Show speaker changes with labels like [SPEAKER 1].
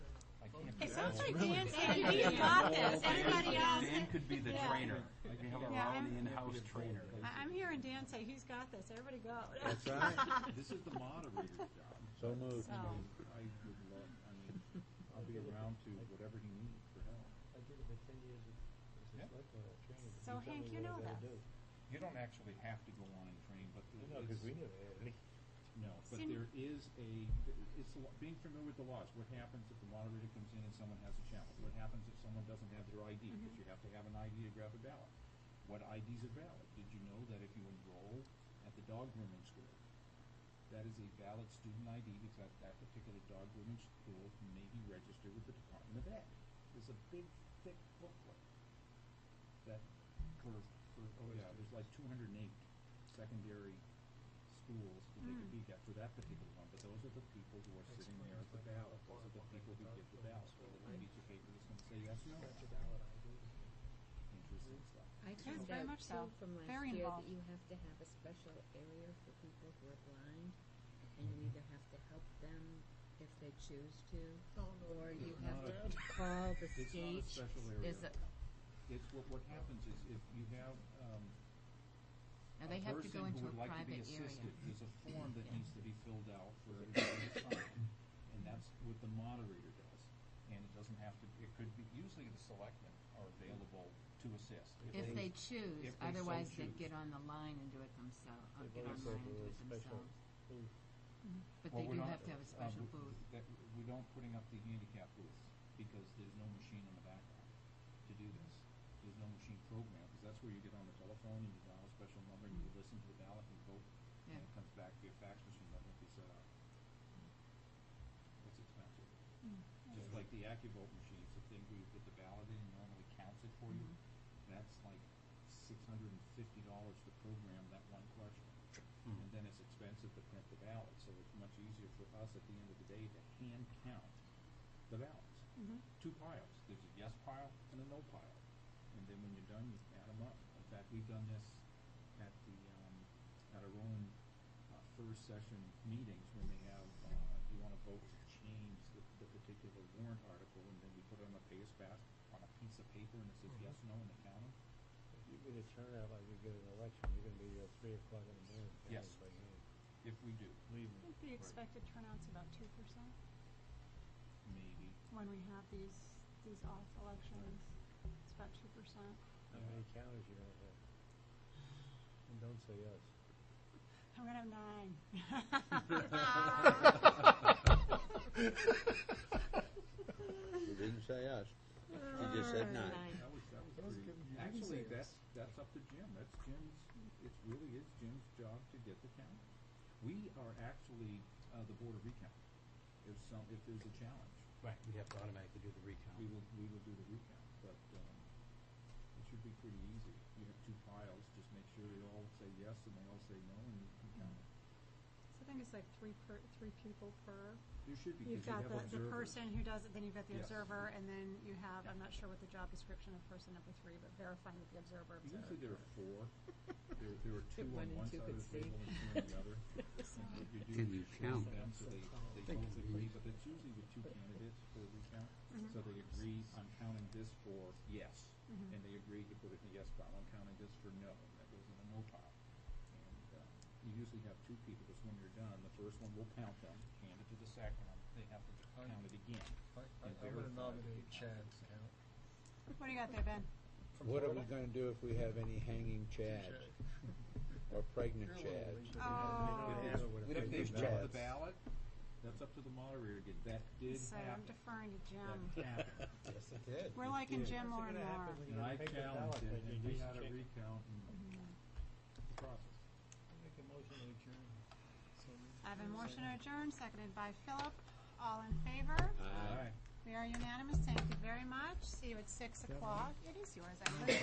[SPEAKER 1] That's
[SPEAKER 2] That's
[SPEAKER 1] really
[SPEAKER 2] Dan
[SPEAKER 1] exciting.
[SPEAKER 2] said, "You've got this.
[SPEAKER 1] Dan-
[SPEAKER 2] Everybody else-
[SPEAKER 1] Dan could be the
[SPEAKER 2] Yeah.
[SPEAKER 1] trainer. We have
[SPEAKER 2] Yeah,
[SPEAKER 1] our own
[SPEAKER 2] I'm-
[SPEAKER 1] in-house trainer.
[SPEAKER 2] I- I'm hearing Dan say, who's got this? Everybody go.
[SPEAKER 3] That's right.
[SPEAKER 4] This is the moderator's job.
[SPEAKER 3] So moved.
[SPEAKER 2] So- Oh.
[SPEAKER 4] I would love, I mean, I'll be around to whatever he needs for help.
[SPEAKER 5] I did it for ten years as
[SPEAKER 4] Yeah.
[SPEAKER 5] a selectman at training.
[SPEAKER 2] So Hank, you know this.
[SPEAKER 4] You don't actually have to go on and train, but there
[SPEAKER 5] No, because
[SPEAKER 4] is,
[SPEAKER 5] we never had any.
[SPEAKER 4] no, but
[SPEAKER 2] Sin-
[SPEAKER 4] there is a, it's the law- being familiar with the laws. What happens if the moderator comes in and someone has a challenge? What happens if someone doesn't have their ID? Because you have to have an ID to grab a ballot. What IDs are valid? Did you know that if you enroll at the dog grooming school, that is a valid student ID because that, that particular dog grooming school may be registered with the Department of Ed. There's a big, thick booklet that for, for, oh yeah, there's like two hundred and eight secondary schools that they could be at for that particular one, but those are the people who are sitting there at the ballot, those are the people who give the ballot, whether the piece of paper is gonna say yes, no, interesting stuff.
[SPEAKER 6] I
[SPEAKER 2] Yes,
[SPEAKER 6] found
[SPEAKER 2] very
[SPEAKER 6] out
[SPEAKER 2] much
[SPEAKER 6] too
[SPEAKER 2] so.
[SPEAKER 6] from last
[SPEAKER 2] Very
[SPEAKER 6] year
[SPEAKER 2] involved.
[SPEAKER 6] that you have to have a special area for people who are blind, and you either have to help them if they choose to, or you
[SPEAKER 4] Oh, It's
[SPEAKER 6] have
[SPEAKER 4] not
[SPEAKER 6] to
[SPEAKER 4] a-
[SPEAKER 6] call the
[SPEAKER 4] It's not a
[SPEAKER 6] state.
[SPEAKER 4] special area.
[SPEAKER 6] Is it-
[SPEAKER 4] It's what, what happens is if you have, um,
[SPEAKER 6] Now they have to go into a private
[SPEAKER 4] person who would like to be
[SPEAKER 6] area.
[SPEAKER 4] assisted, there's a form that
[SPEAKER 6] Yeah.
[SPEAKER 4] needs to be filled out for everybody to sign, and that's what the moderator does. And it doesn't have to, it could be, usually the selectmen are available to assist.
[SPEAKER 6] If they choose,
[SPEAKER 4] if they so
[SPEAKER 6] otherwise
[SPEAKER 4] choose.
[SPEAKER 6] they'd get on the line and do it themselves, or
[SPEAKER 5] They've
[SPEAKER 6] get
[SPEAKER 5] always said
[SPEAKER 6] online and do
[SPEAKER 5] there
[SPEAKER 6] it
[SPEAKER 5] was special-
[SPEAKER 6] themselves.
[SPEAKER 5] Mm.
[SPEAKER 6] But
[SPEAKER 4] Well,
[SPEAKER 6] they
[SPEAKER 4] we're
[SPEAKER 6] do
[SPEAKER 4] not-
[SPEAKER 6] have to have a
[SPEAKER 4] uh,
[SPEAKER 6] special
[SPEAKER 4] we-
[SPEAKER 6] booth.
[SPEAKER 4] That, we don't putting up the handicap booths, because there's no machine in the background to do this. There's no machine program, because that's where you get on the telephone and you dial a special number and you listen to the ballot and vote, and
[SPEAKER 6] Mm-hmm. Yeah.
[SPEAKER 4] it comes back via fax machine, that won't be set up. It's expensive.
[SPEAKER 6] Mm-hmm.
[SPEAKER 2] Mm-hmm.
[SPEAKER 4] Just like the AccuVote machine, it's a thing where you put the ballot in and normally counts it for you.
[SPEAKER 6] Mm-hmm.
[SPEAKER 4] That's like six hundred and fifty dollars to program that one question. And then it's expensive to print the ballot, so it's much easier for us at the end of the day to hand count the ballots.
[SPEAKER 2] Mm-hmm.
[SPEAKER 4] Two piles, there's a yes pile and a no pile. And then when you're done, you add them up. In fact, we've done this at the, um, at our own, uh, first session meetings when they have, uh, you wanna vote to change the, the particular warrant article and then we put it on a paste fast on a piece of paper and it says yes, no, and they count 'em.
[SPEAKER 5] If you're gonna turn out like we get an election, you're gonna be there at three o'clock in the morning. counting
[SPEAKER 4] Yes.
[SPEAKER 5] by hand.
[SPEAKER 4] If we do,
[SPEAKER 1] Leave
[SPEAKER 2] I
[SPEAKER 1] them.
[SPEAKER 2] think the expected turnout's about two percent
[SPEAKER 4] maybe.
[SPEAKER 2] when we have these, these off elections. It's about two percent.
[SPEAKER 5] How many counties you gonna have? And don't say us.
[SPEAKER 2] I'm gonna have nine.
[SPEAKER 3] You didn't say us. You just said nine.
[SPEAKER 6] Nine.
[SPEAKER 4] That was, that was pretty, actually, that's, that's up to Jim, that's Jim's, it really is Jim's job to get the count. We are actually, uh, the board of recount, if some, if there's a challenge,
[SPEAKER 1] Right, we have to automatically do the
[SPEAKER 4] we
[SPEAKER 1] recount.
[SPEAKER 4] will, we will do the recount, but, um, it should be pretty easy. You have two piles, just make sure they all say yes and they all say no and you can count. them.
[SPEAKER 2] So I think it's like three per, three people per.
[SPEAKER 4] There should be,
[SPEAKER 2] You've
[SPEAKER 4] because you
[SPEAKER 2] got
[SPEAKER 4] have observers.
[SPEAKER 2] the, the person who does it, then you've got the
[SPEAKER 4] Yes.
[SPEAKER 2] observer, and then you have, I'm not sure what the job description of person number three, but verifying that the observer observed.
[SPEAKER 4] Usually there are four, there, there are two on
[SPEAKER 6] One and
[SPEAKER 4] one
[SPEAKER 6] two
[SPEAKER 4] side of
[SPEAKER 6] could
[SPEAKER 4] the
[SPEAKER 6] see.
[SPEAKER 4] table and two on the other.
[SPEAKER 3] Can you count?
[SPEAKER 4] They both agree, but it's usually with two candidates for recount. So they agree, I'm counting this for yes, and they agree to put it in the yes pile. I'm counting this for no, and that goes in the no pile. And uh, you usually have two people, because when you're done, the first one will count them, hand it to the second one, they have to count it again.
[SPEAKER 7] I, I,
[SPEAKER 4] and
[SPEAKER 7] I would
[SPEAKER 4] verify
[SPEAKER 7] nominate
[SPEAKER 4] that they
[SPEAKER 7] Chad
[SPEAKER 4] counted.
[SPEAKER 7] to count.
[SPEAKER 2] What do you got there, Ben?
[SPEAKER 3] What are we gonna do if we have any hanging chads? Or pregnant
[SPEAKER 7] You're a little late.
[SPEAKER 4] If
[SPEAKER 2] Oh.
[SPEAKER 3] chads?
[SPEAKER 5] Yeah,
[SPEAKER 4] it's-
[SPEAKER 5] I would've
[SPEAKER 4] If
[SPEAKER 5] picked
[SPEAKER 4] they've
[SPEAKER 5] the
[SPEAKER 4] dropped the ballot,
[SPEAKER 3] ballots.
[SPEAKER 4] that's up to the moderator again. That did
[SPEAKER 2] So I'm
[SPEAKER 4] happen.
[SPEAKER 2] deferring to
[SPEAKER 4] That
[SPEAKER 2] Jim.
[SPEAKER 4] happened.
[SPEAKER 3] Yes, it did.
[SPEAKER 2] We're liking Jim more and more.
[SPEAKER 5] What's gonna happen when you
[SPEAKER 4] And I
[SPEAKER 5] take the ballot
[SPEAKER 4] challenged it,
[SPEAKER 5] measure?
[SPEAKER 4] and we
[SPEAKER 5] Just
[SPEAKER 4] had a
[SPEAKER 5] check-
[SPEAKER 4] recount and the process.
[SPEAKER 7] I'll Make a motion to adjourn. So moved.
[SPEAKER 2] I have a motion to adjourn, seconded by Philip. All in favor?
[SPEAKER 3] Aye.
[SPEAKER 4] All right.
[SPEAKER 2] We are unanimous. Thank you very much. See you at six o'clock. It is yours, I believe.